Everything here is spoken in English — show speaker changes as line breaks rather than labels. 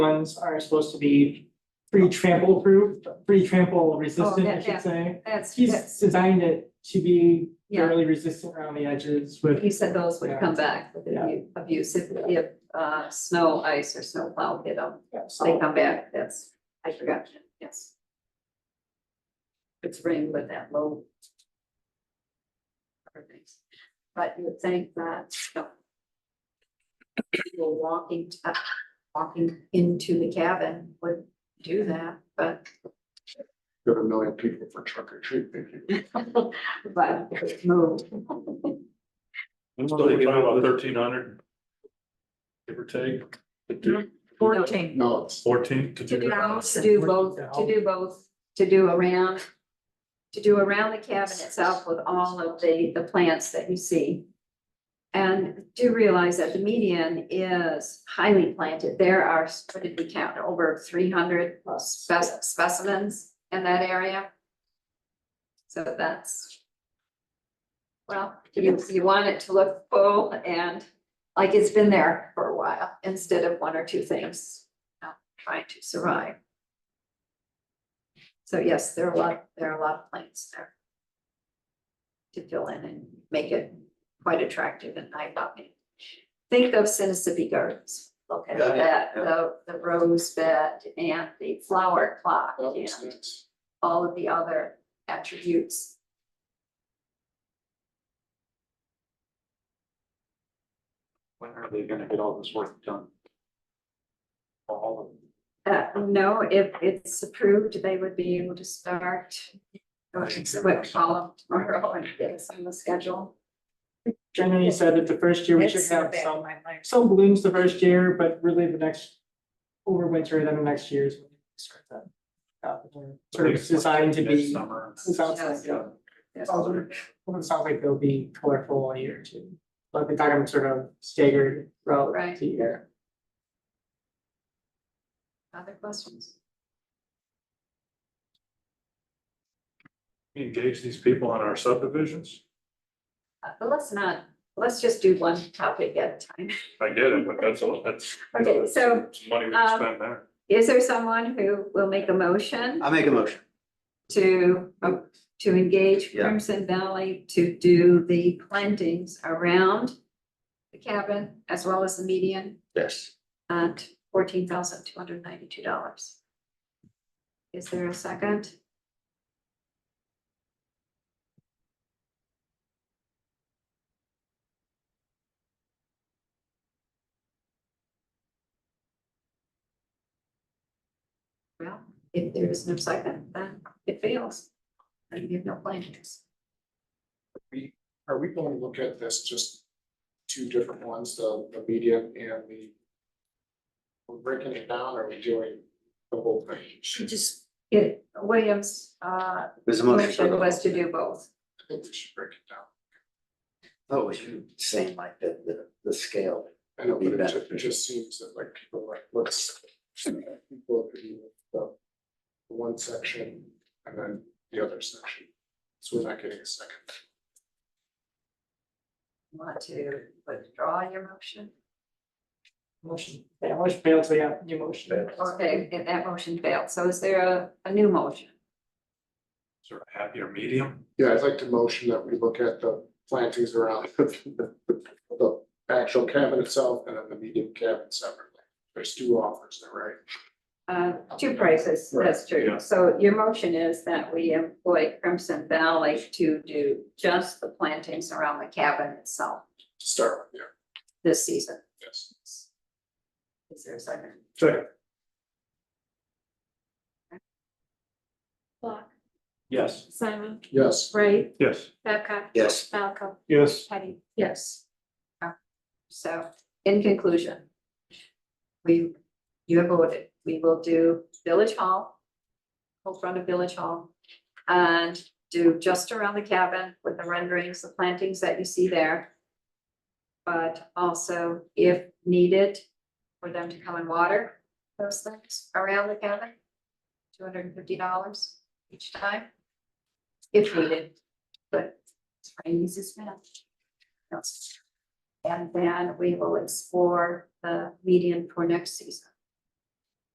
ones are supposed to be free trample proof, free trample resistant, I
that-
should
that-
say.
That's,
He's
that's,
designed it to be
yeah,
fairly resistant around the edges with,
you said those would come back with
Yeah.
abu- abuse if, if, uh, snow, ice or snow plow hit them. They
so
come back, that's, I forgot, yes. It's rain with that low. everything. But you would think that, no. People walking, t- uh, walking into the cabin would do that, but,
Got a million people for trick or treat, thank you.
but move.
I'm still thinking about thirteen hundred. Give or take,
Mm-hmm. Fourteen.
No, it's,
fourteen to
To
do.
do both, to do both, to do both, to do around, to do around the cabin itself with all of the, the plants that you see. And do realize that the median is highly planted. There are, what did we count, over three hundred plus spec- specimens in that area. So that's. Well, you, you want it to look full and like it's been there for a while instead of one or two things trying to survive. So yes, there are a lot, there are a lot of plants there. To fill in and make it quite attractive and eye popping. Think of Sinisippi Gardens, look at
Yeah, yeah,
that,
yeah.
the, the rose bed and the flower clock
that
and
makes sense.
all of the other attributes.
When are they gonna get all this work done? All of it.
Uh, no, if it's approved, they would be able to start. Or what column tomorrow and get us on the schedule.
generally you said that the first year we should
It's so
have
bad,
some,
my mind.
some blooms the first year, but really the next. Over winter, then the next year is when we start that. Uh, sort of designed to be, it
Midsummer.
sounds
Yes.
like, uh,
Yes.
Sounds like- well, it sounds like they'll be colorful a year or two. But we got them sort of staggered throughout
Right.
the year.
Other questions?
We Engage these people on our subdivisions,
Uh, But let's not, let's just do one topic at a time.
I get it, but that's, a that's.
Okay, so
that's Money we can
um,
spend there.
is there someone who will make a motion
I make a motion.
to, uh, to engage
Yeah.
Crimson Valley to do the plantings around the cabin as well as the median
Yes.
at fourteen thousand two hundred ninety-two dollars? Is there a second? Well, if there is no second, then it fails. And you have no plans.
Are we going to look at this just two different ones, the, the median and the. We're breaking it down, or are we doing the whole thing?
Just. It, Williams, uh,
There's a motion. for
motion
the-
was to do both.
I think we should break it down.
Oh, we should say like the, the, the scale.
I know, but it ju-
Better.
it just seems that like people like, let's. People agree with the. the One section and then the other section. So we're not getting a second.
Want to withdraw your motion?
Motion, yeah, motion failed, so yeah, new motion.
Okay, and that motion failed. So is there a, a new motion?
Is there a happier medium?
Yeah, I'd like to motion that we look at the plantings around the, the, the actual cabin itself and then the medium cabin separately. There's two offers there, right?
Uh, two prices, that's true.
yeah.
So your motion is that we employ Crimson Valley to do just the plantings around the cabin itself
To start with, yeah,
this season.
yes.
Is there a second?
Second.
Block,
Yes.
Simon,
Yes,
Ray,
Yes.
Babcock,
Yes.
Falco,
Yes.
Teddy.
Yes. So in conclusion, we, you have voted, we will do Village Hall, whole front of Village Hall, and do just around the cabin with the renderings, the plantings that you see there. But also, if needed, for them to come and water those things around the cabin, two hundred and fifty dollars each time, if needed, but it's rainy as well. Yes. And then we will explore the median for next season.